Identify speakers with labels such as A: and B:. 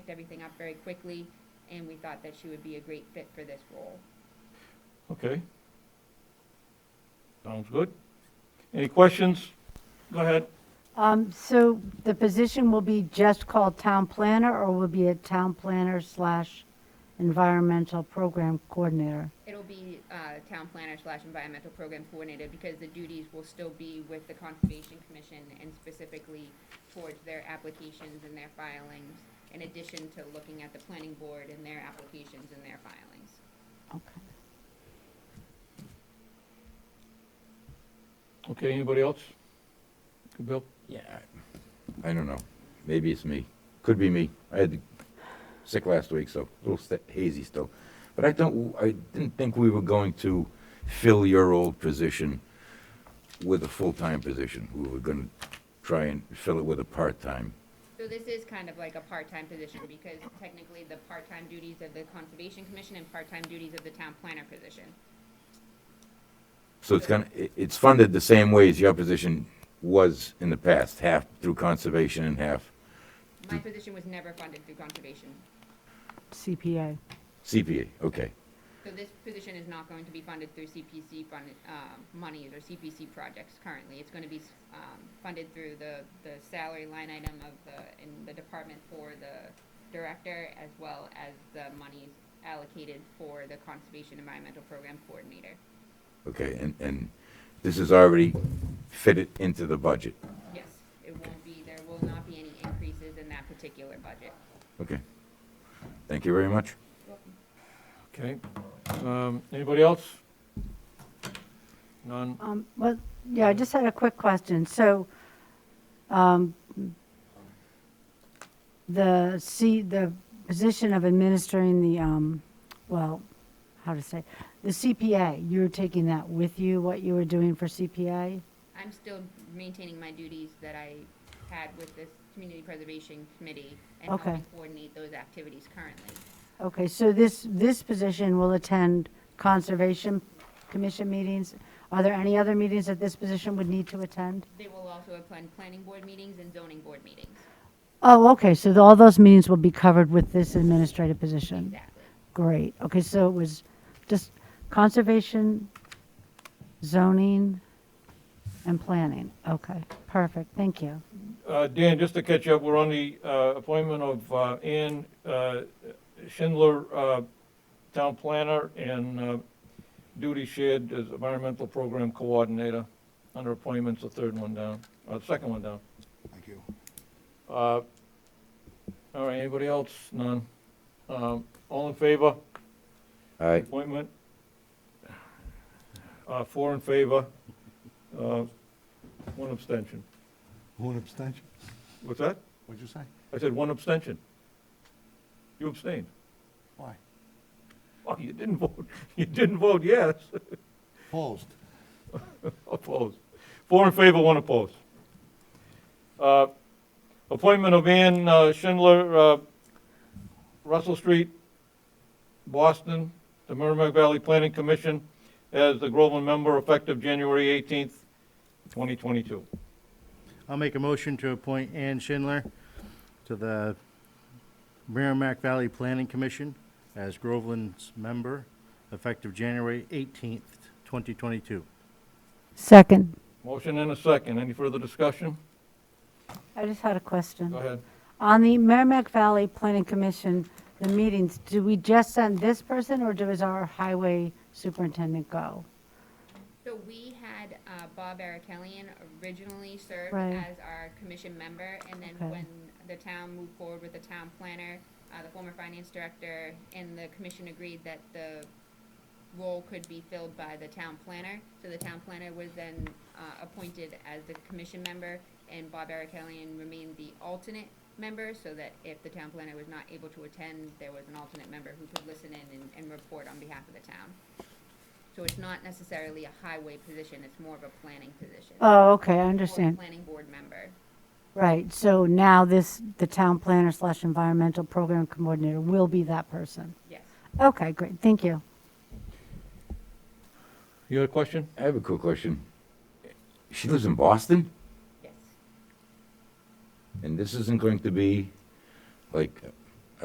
A: everything up very quickly, and we thought that she would be a great fit for this role.
B: Okay. Sounds good. Any questions? Go ahead.
C: Um, so the position will be just called town planner or will be a town planner slash environmental program coordinator?
A: It'll be uh, town planner slash environmental program coordinator because the duties will still be with the Conservation Commission and specifically towards their applications and their filings, in addition to looking at the planning board and their applications and their filings.
C: Okay.
B: Okay, anybody else? Good, Bill?
D: Yeah. I I don't know. Maybe it's me. Could be me. I had sick last week, so a little st- hazy still. But I don't. I didn't think we were going to fill your old position with a full-time position. We were going to try and fill it with a part-time.
A: So this is kind of like a part-time position because technically the part-time duties of the Conservation Commission and part-time duties of the town planner position.
D: So it's gonna. It, it's funded the same way as your position was in the past, half through conservation and half
A: My position was never funded through conservation.
C: CPA.
D: CPA. Okay.
A: So this position is not going to be funded through CPC fund, um, monies or CPC projects currently. It's gonna be, s- um, funded through the, the salary line item of the, in the department for the director as well as the monies allocated for the Conservation Environmental Program Coordinator.
D: Okay. And and this is already fitted into the budget.
A: Yes, it won't be, there will not be any increases in that particular budget.
D: Okay. Thank you very much.
B: Okay. Um, Anybody else? None?
C: Um, well, yeah, I just had a quick question. So, um, the C, the position of administering the, um, well, how to say, the CPA, you're taking that with you, what you were doing for CPA?
A: I'm still maintaining my duties that I had with this Community Preservation Committee and
C: Okay.
A: helping coordinate those activities currently.
C: Okay, so this, this position will attend Conservation Commission meetings. Are there any other meetings that this position would need to attend?
A: They will also attend planning board meetings and zoning board meetings.
C: Oh, okay, so all those meetings will be covered with this administrative position?
A: Exactly.
C: Great, okay, so it was just conservation, zoning, and planning. Okay, perfect, thank you.
B: Uh, Dan, just to catch up, we're on the uh, appointment of uh, Ann uh, Schindler, uh, Town Planner, and uh, duty shared as Environmental Program Coordinator. Under appointments, the third one down, or the second one down.
E: Thank you.
B: Uh, All right, anybody else? None? Um, All in favor?
D: All right.
B: Appointment? Uh, Four in favor, uh, one abstention.
E: One abstention?
B: What's that?
E: What'd you say?
B: I said one abstention. You abstained.
E: Why?
B: Oh, you didn't vote, you didn't vote yes.
E: Opposed?
B: Opposed. Four in favor, one opposed. Uh, Appointment of Ann uh, Schindler, uh, Russell Street, Boston, the Merrimack Valley Planning Commission as the Groveland member effective January 18th, 2022.
F: I'll make a motion to appoint Ann Schindler to the Merrimack Valley Planning Commission as Groveland's member, effective January 18th, 2022.
C: Second.
B: Motion and a second. Any further discussion?
C: I just had a question.
B: Go ahead.
C: On the Merrimack Valley Planning Commission, the meetings, do we just send this person, or does our highway superintendent go?
A: So we had uh, Bob Arakelian originally serve
C: Right.
A: as our commission member, and then
C: Okay.
A: when the town moved forward with the town planner, uh, the former finance director and the commission agreed that the role could be filled by the town planner. So the town planner was then uh, appointed as the commission member, and Bob Arakelian remained the alternate member, so that if the town planner was not able to attend, there was an alternate member who could listen in and, and report on behalf of the town. So it's not necessarily a highway position, it's more of a planning position. Or
C: Oh, okay, I
A: a
C: understand.
A: Planning board member.
C: Right, so now this, the town planner slash environmental program coordinator will be that person.
A: Yes.
C: Okay, great, thank you.
B: You had a question?
D: I have a quick question. She lives in Boston,
A: Yes.
D: and this isn't going to be like